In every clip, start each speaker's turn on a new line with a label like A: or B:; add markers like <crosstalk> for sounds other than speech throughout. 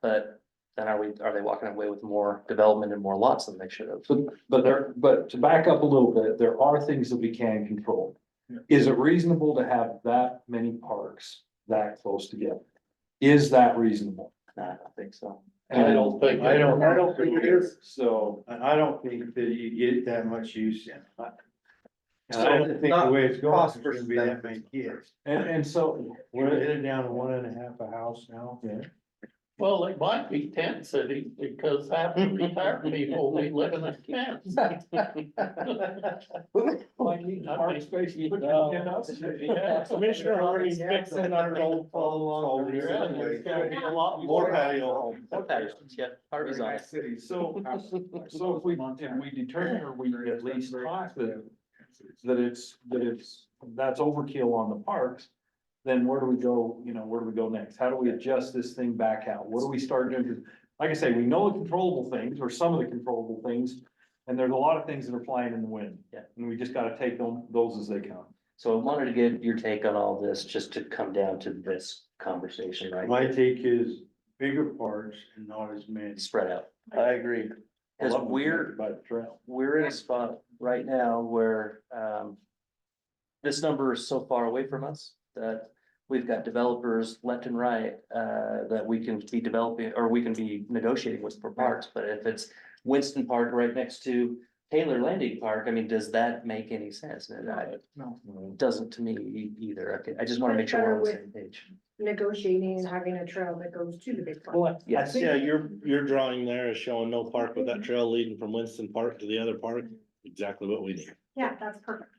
A: But then are we, are they walking away with more development and more lots than they should have?
B: So, but there, but to back up a little bit, there are things that we can control.
C: Yeah.
B: Is it reasonable to have that many parks that close together? Is that reasonable?
A: Nah, I don't think so.
C: I don't think, I don't.
D: I don't think it is.
B: So,
C: And I don't think that you get that much use in. it. And I
B: So
C: don't
B: it's
C: think the
B: not
C: way it's going,
B: cost
C: it's gonna
B: versus
C: be that many
B: benefit.
C: kids.
B: and, and
D: <laughs>
B: so,
C: We're headed down to one and a half a house now.
B: Yeah.
D: Well, it might be tent cities because half the retired people, they live in a tent.
B: park
D: <laughs>
B: space. you put it
D: No.
B: in us.
D: Yeah, Commissioner Harney's fixing our old
C: Follow along.
D: There's gotta be a lot
C: More
D: more.
C: patio homes.
A: Okay, yeah, part of it is
B: City, so, uh, so if we, if we determine or we at least talk to them, that it's, that it's, that's overkill on the parks. Then where do we go, you know, where do we go next? How do we adjust this thing back out? What do we start doing? 'Cause Like I say, we know the controllable things or some of the controllable things, and there's a lot of things that are flying in the wind.
A: Yeah.
B: And we just gotta take them, those as they come.
A: So I wanted to get your take on all this, just to come down to this conversation, right?
C: My take is bigger parks and not as many.
A: Spread out.
C: I agree.
B: I
A: Cause
B: love what's
A: we're,
B: By the trail.
A: we're in a spot right now where, um. This number is so far away from us that we've got developers left and right, uh, that we can be developing, or we can be negotiating with for parks. But if it's Winston Park right next to Taylor Landing Park, I mean, does that make any sense? And I- it doesn't to me e- either. Okay, I just wanna make sure we're on the same page.
E: negotiating and having a trail that goes to the big park.
B: Well, I
A: Yes.
B: think,
F: Yeah, your, your drawing there is showing no park, but that trail leading from Winston Park to the other park, exactly what we need.
E: Yeah, that's perfect.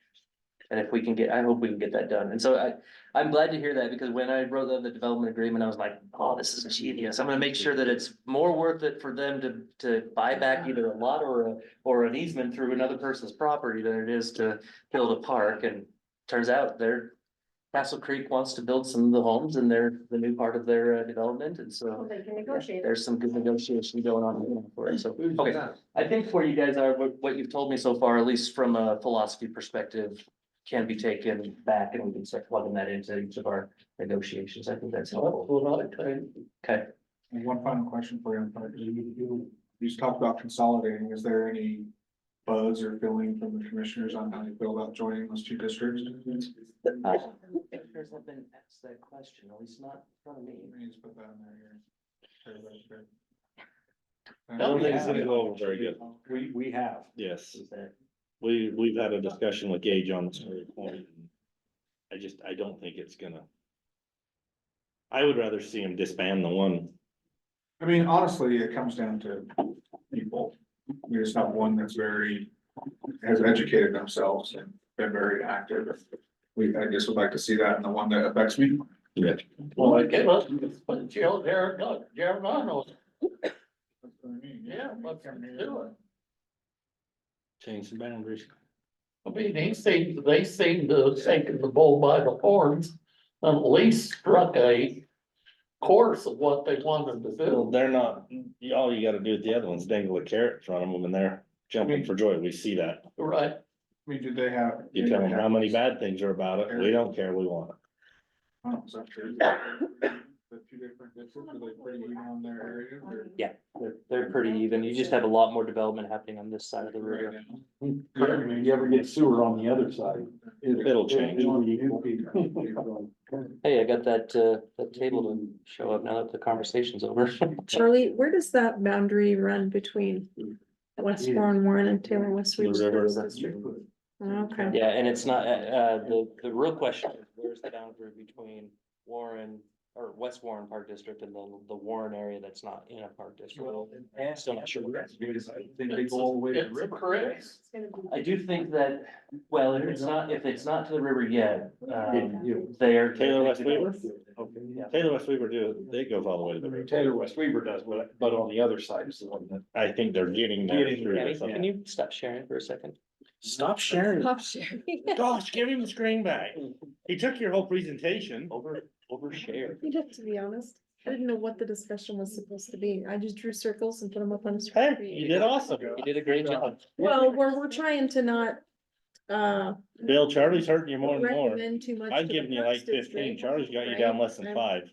A: And if we can get, I hope we can get that done. And so I, I'm glad to hear that because when I wrote up the development agreement, I was like, oh, this is genius. I'm gonna make sure that it's more worth it for them to, to buy back either a lot or a, or an easement through another person's property than it is to build a park. And turns out they're, Castle Creek wants to build some of the homes and they're the new part of their uh, development. And
E: Well,
A: so
E: They can
A: yeah,
E: negotiate.
A: there's some good negotiation going on for it. So, okay. I think where you guys are, what, what you've told me so far, at least from a philosophy perspective, can be taken back and we can start plugging that into each of our negotiations. I think that's helpful. Okay,
G: And one final question for you, on part- you, you, you just talked about consolidating, is there any buzz or feeling from the commissioners on how you feel about joining those two districts?
A: I don't think commissioners have been asked that question, at least not from me.
G: You just put that in there, here.
F: I don't think it's gonna go over very good.
B: we, we have.
F: Yes,
A: Is that-
F: we, we've had a discussion with Gage on this very point. I just, I don't think it's gonna. I would rather see him disband the one.
G: I mean, honestly, it comes down to people. We just have one that's very, has educated themselves and been very active. We, I guess would like to see that in the one that affects me.
D: Well, I get us, but Gerald, Gerald, Gerald, yeah, let's do it.
F: Change the boundaries.
D: I mean, they seem, they seem to have taken the bull by the horns and at least struck a course of what they wanted to
F: Well,
D: do.
F: they're not, all you gotta do with the other ones, dangle a carrot in front of them and they're jumping for joy. We see that.
D: Right,
G: I mean, do they have?
F: You tell them how many bad things are about it. We don't care. We want it.
G: Oh, is that true? The two different districts, are they pretty even on their area
E: Um,
G: or?
A: They're, they're pretty even. You just have a lot more development happening on this side of the river.
B: You ever- you ever get sewer on the other side?
F: It'll change.
B: it'll be equal.
A: Hey, I got that, uh, that table to show up now that the conversation's over. <laughs>
H: Charlie, where does that boundary run between West Warren, Warren and Taylor West?
F: The
H: Reach?
F: river.
H: Okay.
A: Yeah, and it's not, uh, uh, the, the real question is where's the boundary between Warren or West Warren Park District and then the Warren area that's not in a park district? Still not sure.
B: Then they go all the way to the
D: it's a
B: river.
D: correct.
E: It's gonna be-
A: I do think that, well, if it's not, if it's not to the river yet, um,
B: Yeah.
A: they're.
F: Taylor West Weaver?
B: Okay.
A: Yeah.
F: Taylor West Weaver do, they go all the way to the river.
B: Taylor West Weaver does, but, but on the other side is the one that.
F: I think they're getting there.
B: Getting
F: through
B: there,
A: Tammy,
F: this.
A: Can you stop sharing for a second?
F: Stop sharing.
H: Pop share.
E: <laughs>
F: Gosh, give him the screen back.
H: <laughs>
F: He took your whole presentation.
H: Oh,
A: Over, overshare.
H: You'd have to be honest. I didn't know what the discussion was supposed to be. I just drew circles and put them up on the
F: Hey,
H: screen.
F: you did awesome.
A: You did a great <laughs> job.
H: Well, we're, we're trying to not, uh,
F: Bill, Charlie's hurting you more and more.
H: recommend too much.
F: I've
H: to the
F: given you like
H: parks district,
F: fifteen. Charlie's got you down
H: right?
F: less than
H: I'm-
F: five.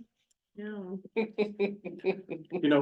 H: No.
B: You know,